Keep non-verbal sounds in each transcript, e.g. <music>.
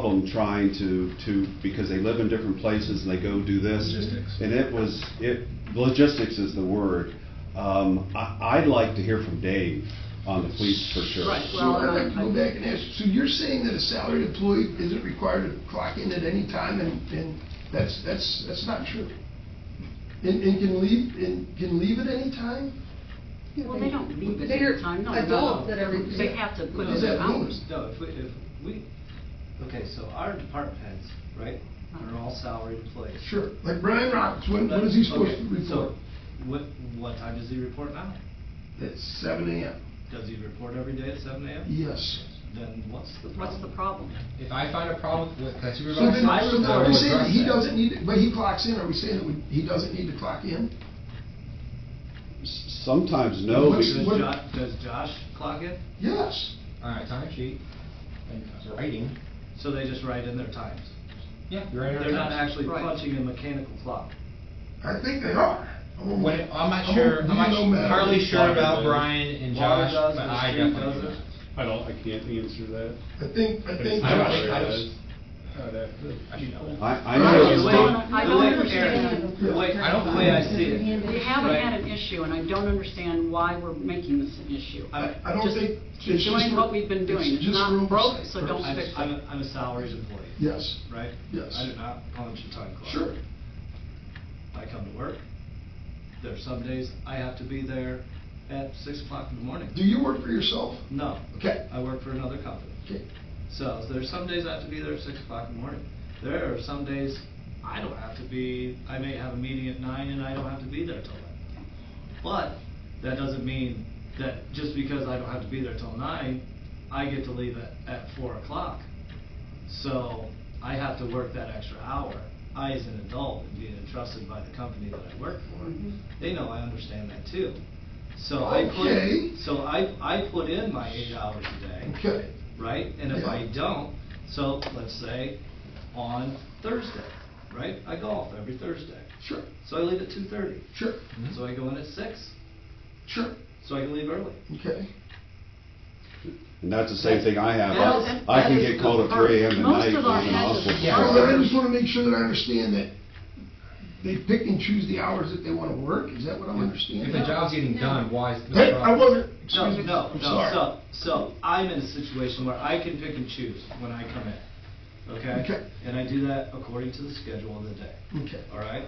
problem trying to, to, because they live in different places and they go do this. Logistics. And it was, it, logistics is the word. Um, I, I'd like to hear from Dave on the police for sure. Right. So I'd like to go back and ask, so you're saying that a salaried employee isn't required to clock in at any time, and, and that's, that's, that's not true? And, and can leave, and can leave at any time? Well, they don't leave at They're any time, no, no. adults that are- They have to put Is in that their hours. mean? No, if we, if we, okay, so our department heads, right, are all salaried employees. Sure, like Brian Roberts, when, when is he supposed to Okay, so report? What, what time does he report now? At seven AM. Does he report every day at seven AM? Yes. Then what's the problem? What's the problem? If I find a problem with a So then, supervisor, so I I are will we saying that address he that. doesn't need, to- but he clocks in, are we saying that we- he doesn't need to clock in? S- Sometimes no, What's- because- Does What- Jo- does Josh clock in? Yes. On a time sheet, and it's writing, So they just write in their times? yeah, you're in our They're not times. actually Right. punching a mechanical clock? I think they are. I'm- When, it- I'm not sure, I'm not you know, man. su- hardly sure Water about does. Brian and Water Josh, does, but the I street definitely do does it. I don't, I can't answer that. I think, I think. I don't think- I Uh, was- I'd have to- not. I do know. I, I Right, know. you it's wait. not- I The don't way- understand. Eric, The way, I don't the way I see it, We haven't Right. had an issue, and I don't understand why we're making this an issue. I, I don't Just think. keep it's doing just what for- we've been doing. It's just for not oversight broke, so don't purposes. I'm, fix it. I'm a- I'm a salaried employee, Yes, right? Yes. I do not punch a time clock. sure. I come to work. There are some days I have to be there at six o'clock in the morning. Do you work for yourself? No, Okay. I work for another company. Okay. So there's some days I have to be there at six o'clock in the morning. There are some days I don't have to be, I may have a meeting at nine and I don't have to be there till then. But that doesn't mean that just because I don't have to be there till nine, I get to leave at, at four o'clock. So I have to work that extra hour. I, as an adult, am being entrusted by the company that I work Mm-hmm. Mm-hmm. for. They know I understand that too. So I Okay. put, so I, I put in my eight hours a day Okay. right? And if I Yeah. don't, so let's say on Thursday, right? I golf every Thursday. Sure, So I leave at two thirty. sure, So I go in at six, sure. so I can leave early. Okay. And that's the same thing I have. That is- I I can that is get called the at three AM part. at Most night. of our and heads I'll- are All Yeah. right, I just want to make sure that I understand that they pick and choose the hours that they want to work. Is that what I'm If understanding? the job's getting No. done, why is the Hey, I problem? wasn't, No, excuse me, no, I'm sorry. no, so, so I'm in a situation where I can pick and choose when I come in, okay? Okay. And I do that according to the schedule of the day, Okay. all right?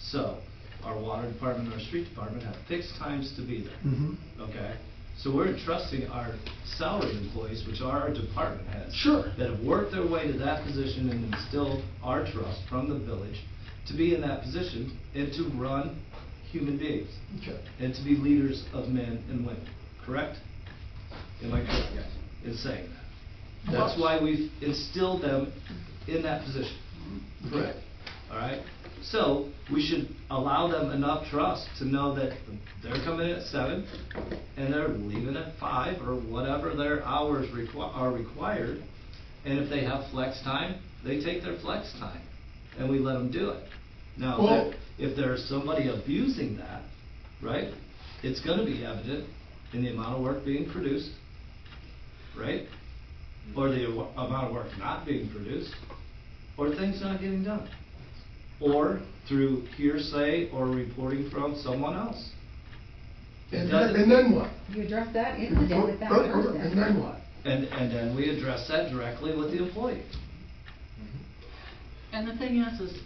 So, our water department, our street department have fixed times to be there. Mhm. Okay, so we're entrusting our salaried employees, which are our department heads. Sure. That have worked their way to that position and instilled our trust from the village to be in that position and to run human beings Okay. and to be leaders of men and women, correct? Am I correct in saying that? That's Yes. why we've instilled them in that position. Okay. All right? So we should allow them enough trust to know that they're coming in at seven and they're leaving at five or whatever their hours requi- are required. And if they have flex time, they take their flex time and we let them do it. Now, if Well- there- if there's somebody abusing that, right, it's gonna be evident in the amount of work being produced, right? Or the awa- amount of work not being produced, or things not getting done or through hearsay or reporting from someone else. And then, and then what? You address that incident with that person. And then what? And, and then we address that directly with the employee. And the thing is, <laughs> is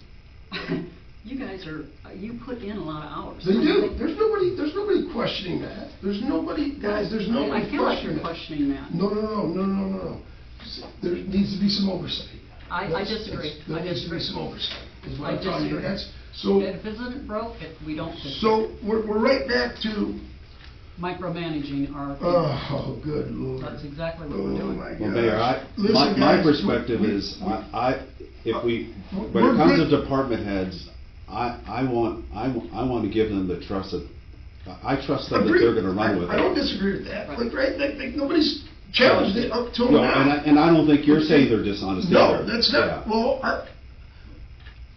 you guys are, you put in a lot of hours. They do. There's nobody, there's nobody questioning that. There's nobody, guys, there's nobody I feel like you're questioning that. questioning that. No, no, no, no, no, no, no. S- There needs to be some oversight. I- I That's- disagree. that's- There I needs to be disagree. some oversight, is what I I'm trying to disagree. get at. So, If it isn't broke, if we don't fix it, so we're, we're right back to, micromanaging our people. oh, good lord. That's exactly what we're Oh, doing. my Well, gosh. Mayor, I, Listen, my, my guys, perspective we- is, we- I, I- if we, Uh, when we're it comes to good. department heads, I, I want, I, wa- I want to give them the trust of, I I trust them that Agree. they're gonna run I- with it. I don't disagree with that. Right. Like, right, like, like, nobody's challenged it up till No, and I, now. and I don't think you're saying they're dishonest either. No, that's not, Yeah. well, I,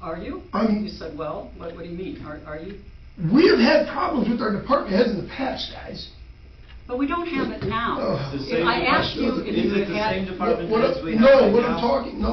Are you? I'm- You said, well, what, what do you mean? Are, are you? we have had problems with our department heads in the past, guys. But we don't have it now. Ugh. The same If I asked you department- if you Is it had the had- same department What I'm- heads we have right No, what I'm now? talking, no,